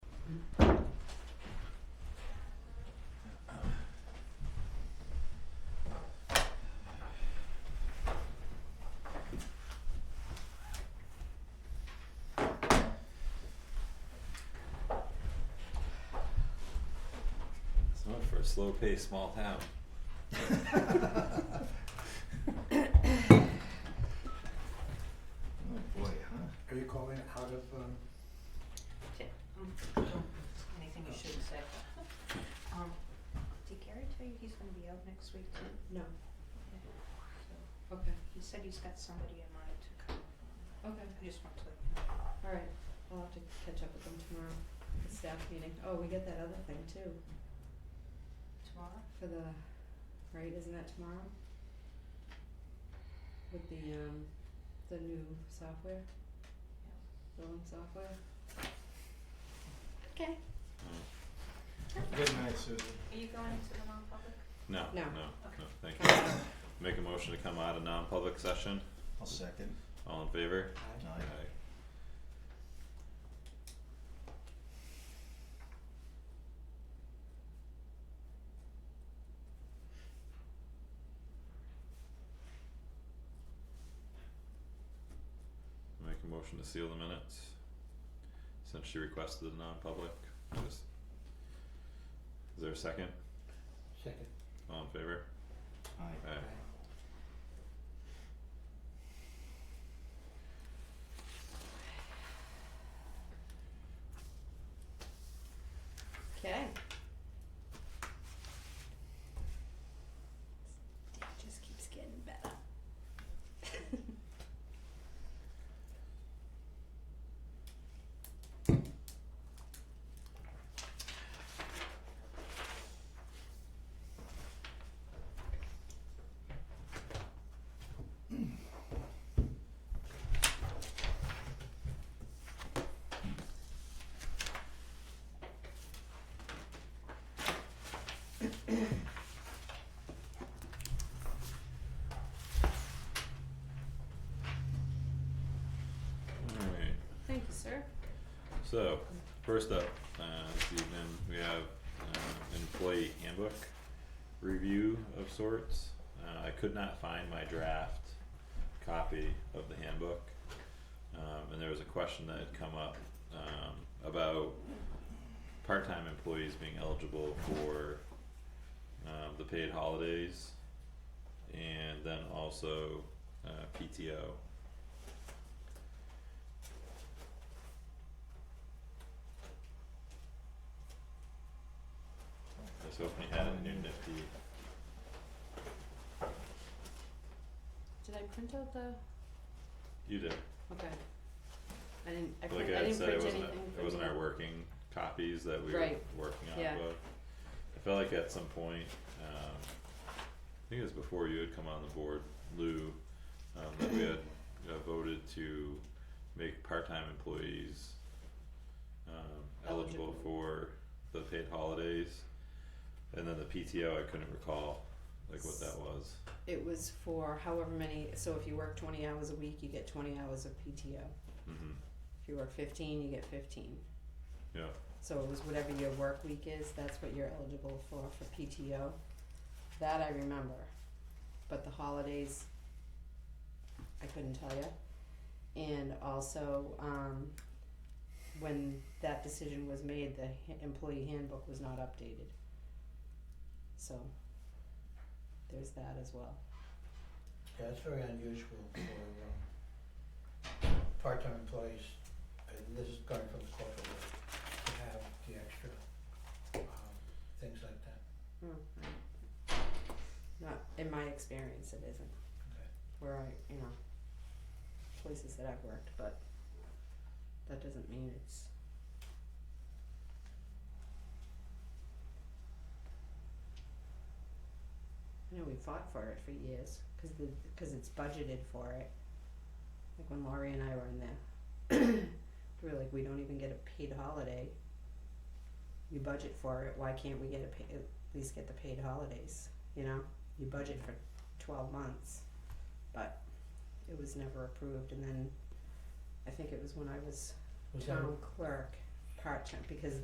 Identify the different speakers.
Speaker 1: It's not for a slow paced small town.
Speaker 2: Oh boy, huh?
Speaker 3: Are you calling it out of, um,
Speaker 4: Ti- mm, Anything you shouldn't say. Um, did Gary tell you he's gonna be out next week too?
Speaker 5: No,
Speaker 4: So,
Speaker 5: okay,
Speaker 4: He said he's got somebody in mind to come.
Speaker 5: okay,
Speaker 4: I just want to let you know.
Speaker 5: alright, I'll have to catch up with them tomorrow, the staff meeting, oh, we get that other thing too,
Speaker 4: Tomorrow?
Speaker 5: for the, right, isn't that tomorrow? With the um, the new software, billing software,
Speaker 4: Okay.
Speaker 2: Good night, Susan.
Speaker 4: Are you going to the non-public?
Speaker 1: No, no,
Speaker 5: No.
Speaker 1: no, thank you.
Speaker 5: Uh,
Speaker 1: Make a motion to come out of non-public session.
Speaker 2: I'll second.
Speaker 1: All in favor?
Speaker 3: I-
Speaker 2: Aye.
Speaker 1: Make a motion to seal the minutes. Since she requested a non-public, just. Is there a second?
Speaker 3: second,
Speaker 1: All in favor?
Speaker 2: Aye.
Speaker 1: Aye.
Speaker 3: aye.
Speaker 5: okay,
Speaker 4: It just keeps getting better.
Speaker 1: Alright,
Speaker 5: thank you, sir.
Speaker 1: so, first up, uh, this evening, we have, uh, employee handbook review of sorts. Uh, I could not find my draft copy of the handbook. Um, and there was a question that had come up, um, about part-time employees being eligible for, um, the paid holidays. And then also, uh, PTO. I was hoping you had a new nifty
Speaker 5: Did I print out the,
Speaker 1: You did.
Speaker 5: okay, I didn't, I
Speaker 1: Like
Speaker 5: print, I
Speaker 1: I
Speaker 5: didn't
Speaker 1: said, it
Speaker 5: print anything
Speaker 1: wasn't, it
Speaker 5: for
Speaker 1: wasn't
Speaker 5: me.
Speaker 1: our working copies that we were
Speaker 5: Right.
Speaker 1: working on,
Speaker 5: Yeah.
Speaker 1: but I felt like at some point, um, I think it was before you had come on the board, Lou, um, that we had uh, voted to make part-time employees um, eligible
Speaker 5: Eligible.
Speaker 1: for the paid holidays. And then the PTO, I couldn't recall, like what that was.
Speaker 5: It was for however many, so if you work twenty hours a week, you get twenty hours of PTO,
Speaker 1: hmm
Speaker 5: if you work fifteen, you get fifteen.
Speaker 1: yeah,
Speaker 5: So it was whatever your work week is, that's what you're eligible for, for PTO. That I remember, but the holidays, I couldn't tell you. And also, um, when that decision was made, the ha- employee handbook was not updated. So, there's that as well.
Speaker 3: Yeah, it's very unusual for, um, part-time employees, and this is going from the corporate world, to have the extra, um, things like that.
Speaker 5: Not, in my experience, it isn't.
Speaker 3: Okay.
Speaker 5: Where I, you know, places that I've worked, but that doesn't mean it's. I know we fought for it for years, cause the, cause it's budgeted for it. Like when Laurie and I were in there, we were like, we don't even get a paid holiday. You budget for it, why can't we get a pa- at least get the paid holidays, you know? You budget for twelve months, but it was never approved, and then I think it was when I was
Speaker 3: Was that-
Speaker 5: town clerk part-time, because